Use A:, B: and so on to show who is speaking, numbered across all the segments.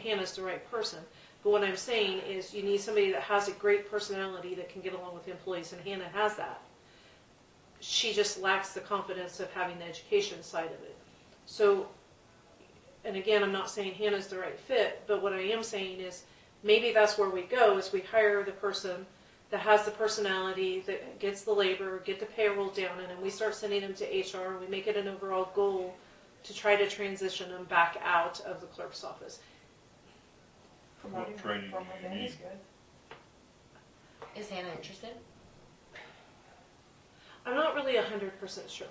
A: Hannah's the right person. But what I'm saying is you need somebody that has a great personality that can get along with employees, and Hannah has that. She just lacks the confidence of having the education side of it. So, and again, I'm not saying Hannah's the right fit, but what I am saying is maybe that's where we go is we hire the person that has the personality, that gets the labor, get the payroll down, and then we start sending them to HR, and we make it an overall goal to try to transition them back out of the clerk's office.
B: What training
C: From
B: do you
C: within is
B: need?
C: good.
D: Is Hannah interested?
A: I'm not really hundred percent sure,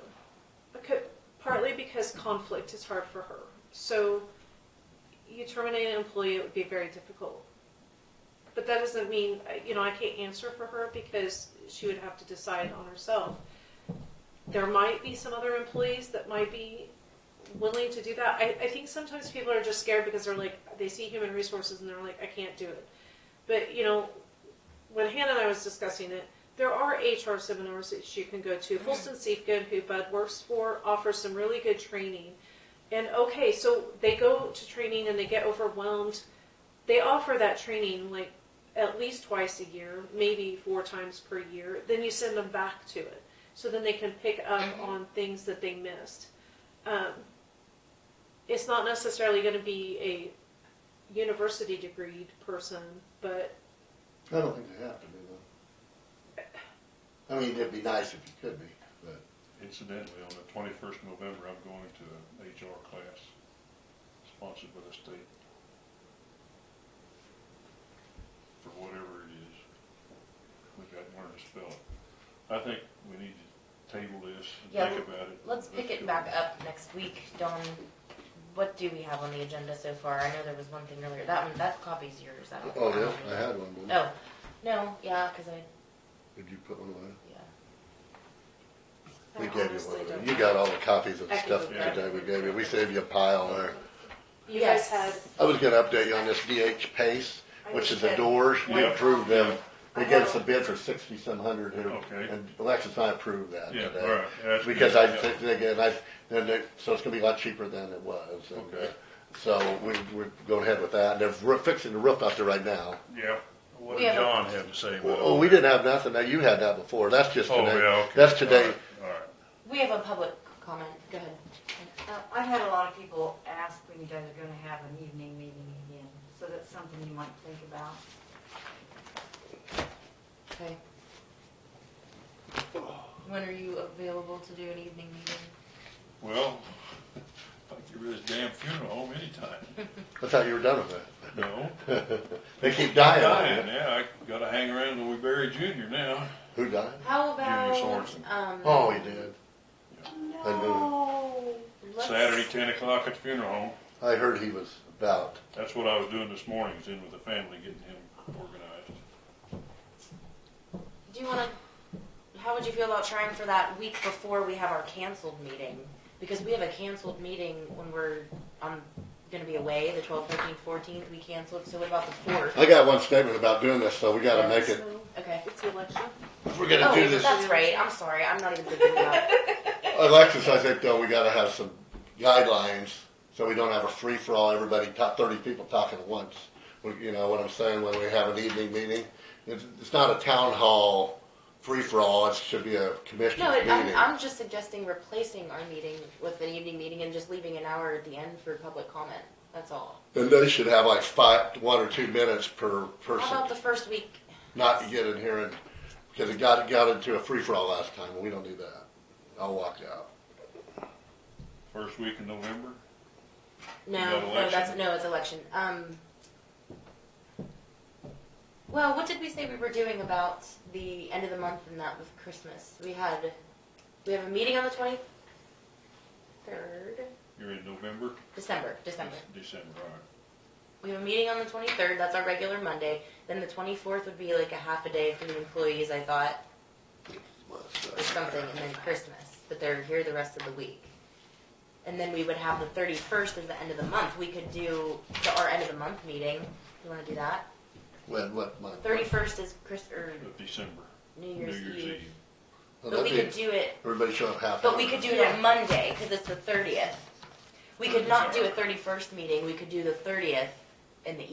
A: because, partly because conflict is hard for her. So, you terminate an employee, it would be very difficult. But that doesn't mean you know I can't answer for her because she would have to decide on herself. There might be some other employees that might be willing to do that. I, I think sometimes people are just scared because they're like they see human resources and they're like I can't do it. But you know, when Hannah and I was discussing it, there are HR seminars that you can go to. Fulton Siefkin, who Bud works for, offers some really good training. And okay, so they go to training and they get overwhelmed. They offer that training like at least twice a year, maybe four times per year. Then you send them back to it. So then they can pick up on things that they missed. Um, it's not necessarily going to be a university degreed person, but
E: I don't think they have to be though. I mean, it'd be nice if you could be, but
B: Incidentally, on the twenty-first November, I'm going to an HR class sponsored by the state. For whatever it is, we've got to learn to spell it. I think we need to table this and
D: Yeah,
B: think about it.
D: Let's pick
B: go.
D: it back up next week. Dawn, what do we have on the agenda so far? I know there was one thing earlier. That one, that copy's yours. I don't
E: oh
D: think
E: yeah,
D: mine
E: I
D: is.
E: had one. Didn't I?
D: Oh, no, yeah, because I,
E: Did you put one away?
D: yeah.
A: I
E: We gave you
A: honestly
E: one. of them.
A: don't
E: You got all the copies of
A: I
E: the
A: can
E: stuff
A: go grab
E: today we
A: it.
E: gave you. We saved you a pile there.
A: You
D: Yes.
A: guys had
E: I was going to update you on this DH Pace, which is the
A: Okay.
E: doors. We
B: Yeah.
E: approved them. They
A: I
E: gave
A: have-
E: us a bid for sixty some hundred here,
B: Okay.
E: and Alexis and I approved that
B: Yeah,
E: today.
B: all right. That's good.
E: Because I
B: Yeah.
E: think again, I then they, so it's going to be a lot cheaper than it was. and, uh,
B: Okay.
E: So we, we're going ahead with that. And they're re- fixing the roof out there right now.
B: Yeah, what
D: We
B: did
D: have a-
B: John have to say about
E: Well,
B: all
E: we
B: that?
E: didn't have nothing. Now you had that before. That's just
B: Oh,
E: today.
B: yeah, okay.
E: That's today.
B: All right,
D: We have a public comment. Go ahead.
C: Uh, I've had a lot of people ask when you guys are gonna have an evening meeting again, so that's something you might think about.
D: Okay. When are you available to do an evening meeting?
B: all right. Well, I can get rid of this damn funeral home anytime.
E: I thought you were done with
B: No?
E: it. they keep dying. on you.
B: Dying, yeah, I gotta hang around till we bury Junior now.
E: Who died?
D: How
B: Junior
D: about,
B: Sorensen.
D: um.
E: Oh, he did.
D: let's-
B: Saturday, ten o'clock at the funeral home.
E: I heard he was about.
B: That's what I was doing this morning, is in with the family, getting him organized.
D: Do you want to? How would you feel about trying for that week before we have our canceled meeting? Because we have a canceled meeting when we're I'm going to be away the 12th, 13th, 14th. We canceled. So what about the 4th?
E: I got one statement about doing this, so we got to make it.
A: so
D: Okay.
A: It's election.
E: If we're going to
D: Oh,
E: do this,
D: that's right. I'm sorry. I'm not even thinking about it.
E: Alexis, I think though we got to have some guidelines so we don't have a free for all. Everybody, top thirty people talking at once. We- You know what I'm saying? When we have an evening meeting, it's, it's not a town hall free for all. It should be a commission
D: No, it,
E: meeting.
D: I'm, I'm just suggesting replacing our meeting with an evening meeting and just leaving an hour at the end for public comment. That's all.
E: And they should have like five, one or two minutes per
D: How about the
E: person,
D: first week?
E: not to get in here and, because it got, got into a free-for-all last time, and we don't do that. I'll walk out.
B: First week in November,
D: No,
B: got
D: no, that's
B: election.
D: no, it's election. Um. Well, what did we say we were doing about the end of the month and that with Christmas? We had, we have a meeting on the twenty third,
B: you're in November,
D: December, December.
B: December, all right.
D: We have a meeting on the twenty third. That's our regular Monday. Then the twenty fourth would be like a half a day for the employees. I thought or something, and then Christmas. But they're here the rest of the week. And then we would have the thirty first as the end of the month. We could do the, our end of the month meeting. You want to do that?
E: When, what month?
D: Thirty first is Chris or
B: Of December,
D: New
B: New
D: Year's
B: Year's
D: Eve.
B: Eve.
E: Well,
D: But we
E: that'd
D: could
E: be-
D: do it.
E: Everybody show up half.
D: But
E: hour.
D: we could do it on Monday because it's the thirtieth. We could not do a thirty first meeting. We could do the thirtieth in the